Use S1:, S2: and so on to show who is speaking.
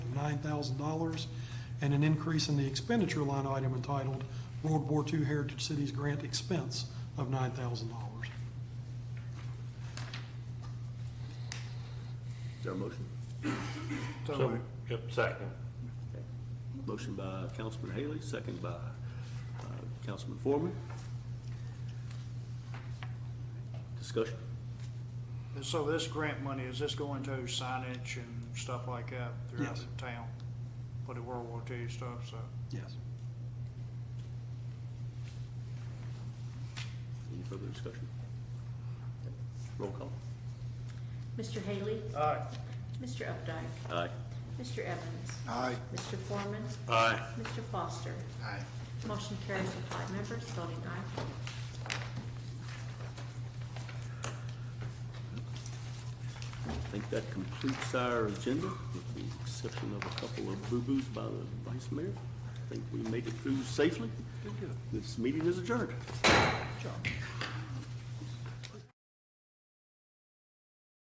S1: $9,000, and an increase in the expenditure line item entitled World War II Heritage Cities Grant Expense of $9,000.
S2: Is there a motion?
S3: So moved. Yep, second.
S2: Motion by Councilman Haley, second by uh, Councilman Foreman. Discussion?
S4: And so this grant money, is this going to signage and stuff like that throughout
S1: Yes.
S4: the town? For the World War II stuff, so.
S1: Yes.
S2: Any further discussion? Roll call.
S5: Mr. Haley?
S4: Aye.
S5: Mr. Updike?
S2: Aye.
S5: Mr. Evans?
S3: Aye.
S5: Mr. Foreman?
S2: Aye.
S5: Mr. Foster?
S3: Aye.
S5: Motion carries with five members voting aye.
S2: I think that completes our agenda, with the exception of a couple of boo-boos by the vice mayor. I think we made it through safely. This meeting is adjourned.